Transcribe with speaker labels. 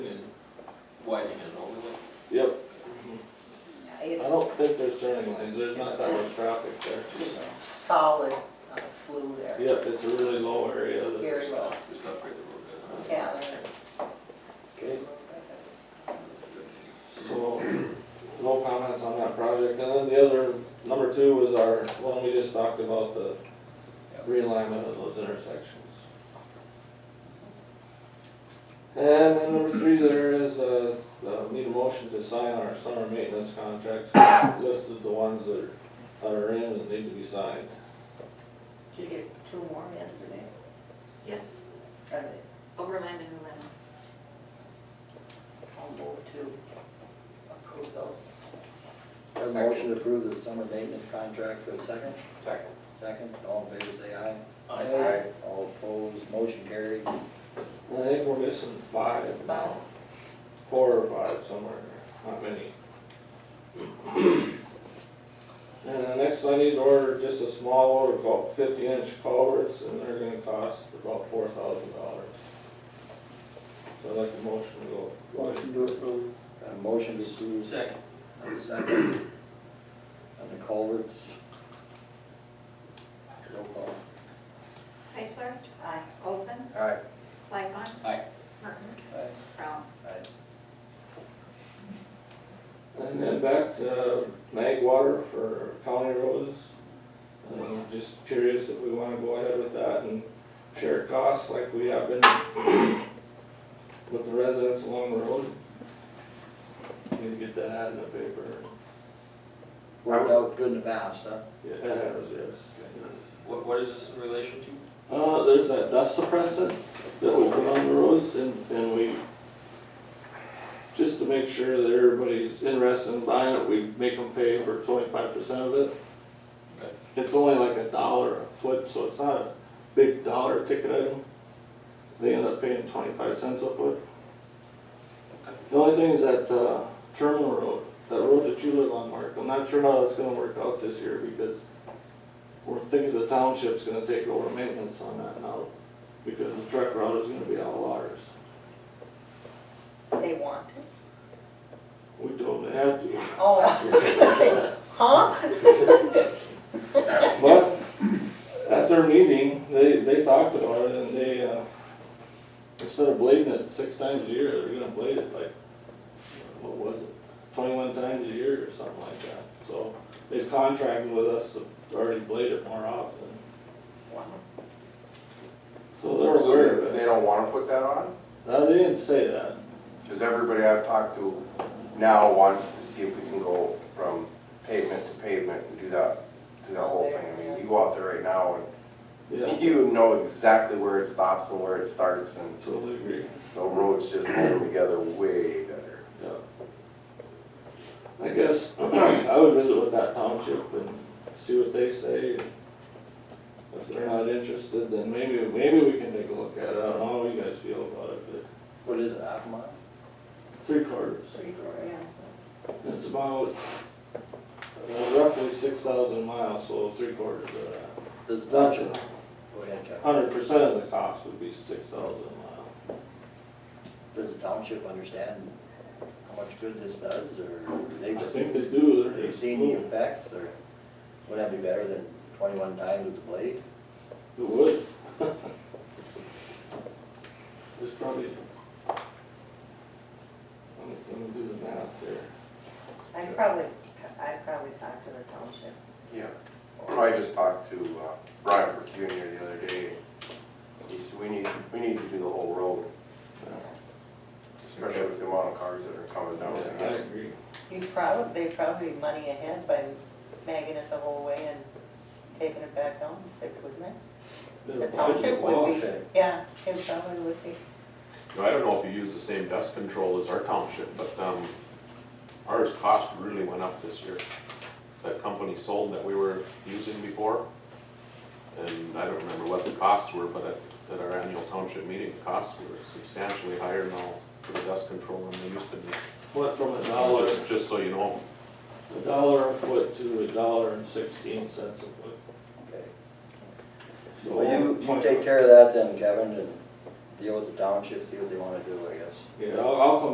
Speaker 1: understanding things, there's not that much traffic there.
Speaker 2: Just solid uh, slew there,
Speaker 1: Yep, it's a really low area. that-
Speaker 2: very well,
Speaker 3: Oh, Just upgrade the road bed.
Speaker 2: yeah, there.
Speaker 1: Okay, so, no comments on that project, and then the other, number two was our, one we just talked about, the realignment of those intersections. And then number three, there is, uh, uh, need a motion to sign our summer maintenance contracts, listed the ones that are, that are in and need to be signed.
Speaker 2: Did you get two more yesterday?
Speaker 4: Yes,
Speaker 2: Are they
Speaker 4: Overland and Newland.
Speaker 2: all moved to approve those?
Speaker 5: Have a motion to approve the summer maintenance contract for a second.
Speaker 3: Second.
Speaker 5: Second, all in favor, say aye.
Speaker 3: Aye.
Speaker 5: All opposed, motion carried.
Speaker 1: I think we're missing five now, four or five somewhere, not many. And the next I need to order just a small order called fifty inch culverts and they're gonna cost about four thousand dollars. So I'd like a motion to go.
Speaker 5: to approve. Got a motion to approve.
Speaker 3: Second.
Speaker 5: And a second. On the culverts. Roll call.
Speaker 4: Heisler.
Speaker 2: Aye.
Speaker 4: Olson.
Speaker 5: Aye.
Speaker 4: Lightfon.
Speaker 3: Aye.
Speaker 4: Mertens.
Speaker 5: Aye.
Speaker 4: Brown.
Speaker 5: Aye.
Speaker 1: And then back to Uh, mag water for county roads. Um, Just curious if we wanna go ahead with that and share costs like we have been with the residents along the road. Need to get that ad in the paper.
Speaker 5: Worked out good in the past, huh?
Speaker 1: Yeah, it has, yes.
Speaker 3: What, what is this in relation to?
Speaker 1: Uh, there's that dust suppressor that we put on the roads and, and we, just to make sure that everybody's interested in buying it, we make them pay for twenty-five percent of it.
Speaker 3: Okay.
Speaker 1: It's only like a dollar a foot, so it's not a big dollar ticket item. They end up paying twenty-five cents a foot.
Speaker 3: Okay.
Speaker 1: The only thing is that, uh, terminal road, that road that you live on, Mark, I'm not sure how that's gonna work out this year because we're thinking the township's gonna take over maintenance on that now, because the truck route is gonna be all ours.
Speaker 2: They want it?
Speaker 1: We told them they had to,
Speaker 2: Oh, I was gonna say, huh?
Speaker 1: but at their meeting, they, they talked about it and they, uh, instead of blading it six times a year, they're gonna blade it like, what was it? Twenty-one times a year or something like that, so they've contracted with us to already blade it more often.
Speaker 2: Wow.
Speaker 1: So they're aware of
Speaker 6: They
Speaker 1: it.
Speaker 6: don't wanna put that on?
Speaker 1: Now, they didn't say that.
Speaker 6: Cause everybody I've talked to now wants to see if we can go from pavement to pavement and do that, do that whole thing. I mean, you go out there right now
Speaker 1: Yeah,
Speaker 6: and you know exactly where it stops and where it starts and
Speaker 1: totally agree.
Speaker 6: the roads just hold together way better.
Speaker 1: Yeah. I guess I would visit with that township and see what they say. If they're not interested, then maybe, maybe we can take a look at it. I don't know how you guys feel about it, but
Speaker 5: What is it, half a mile?
Speaker 1: three quarters.
Speaker 2: Pretty great.
Speaker 1: It's about uh, roughly six thousand miles, so three quarters of that.
Speaker 5: Does the
Speaker 1: That's
Speaker 5: township,
Speaker 1: a
Speaker 5: go ahead, Chuck.
Speaker 1: hundred percent of the cost would be six thousand miles.
Speaker 5: Does the township understand how much good this does, or
Speaker 1: I
Speaker 5: they've
Speaker 1: think
Speaker 5: seen,
Speaker 1: they do. They're
Speaker 5: they've
Speaker 1: just-
Speaker 5: seen the effects, or would that be better than twenty-one times with the blade?
Speaker 1: It would. There's probably. Let me, let me do the math there.
Speaker 2: I probably, I probably talked to the township.
Speaker 6: Yeah. I just talked to uh, Brian Percunier the other day. He said, we need, we need to do the whole road, especially with the amount of cars that are coming down.
Speaker 1: Yeah, I agree.
Speaker 2: You probably, they probably be money ahead by magging it the whole way and taking it back down to six, wouldn't it? The township would be,
Speaker 5: Okay.
Speaker 2: yeah, it probably would be.
Speaker 7: Now, I don't know if you use the same dust control as our township, but um, ours cost really went up this year. That company sold that we were using before, and I don't remember what the costs were, but at, at our annual township meeting, the costs were substantially higher now for the dust control than they used to be.
Speaker 1: Went from a dollar,
Speaker 7: Just- Just so you know,
Speaker 1: a dollar a foot to a dollar and sixteen cents a foot.
Speaker 5: Okay.
Speaker 1: So
Speaker 5: Well, you, you
Speaker 1: 25.
Speaker 5: take care of that then, Kevin, and deal with the township, see what they wanna do, I guess.
Speaker 1: Yeah, I'll, I'll come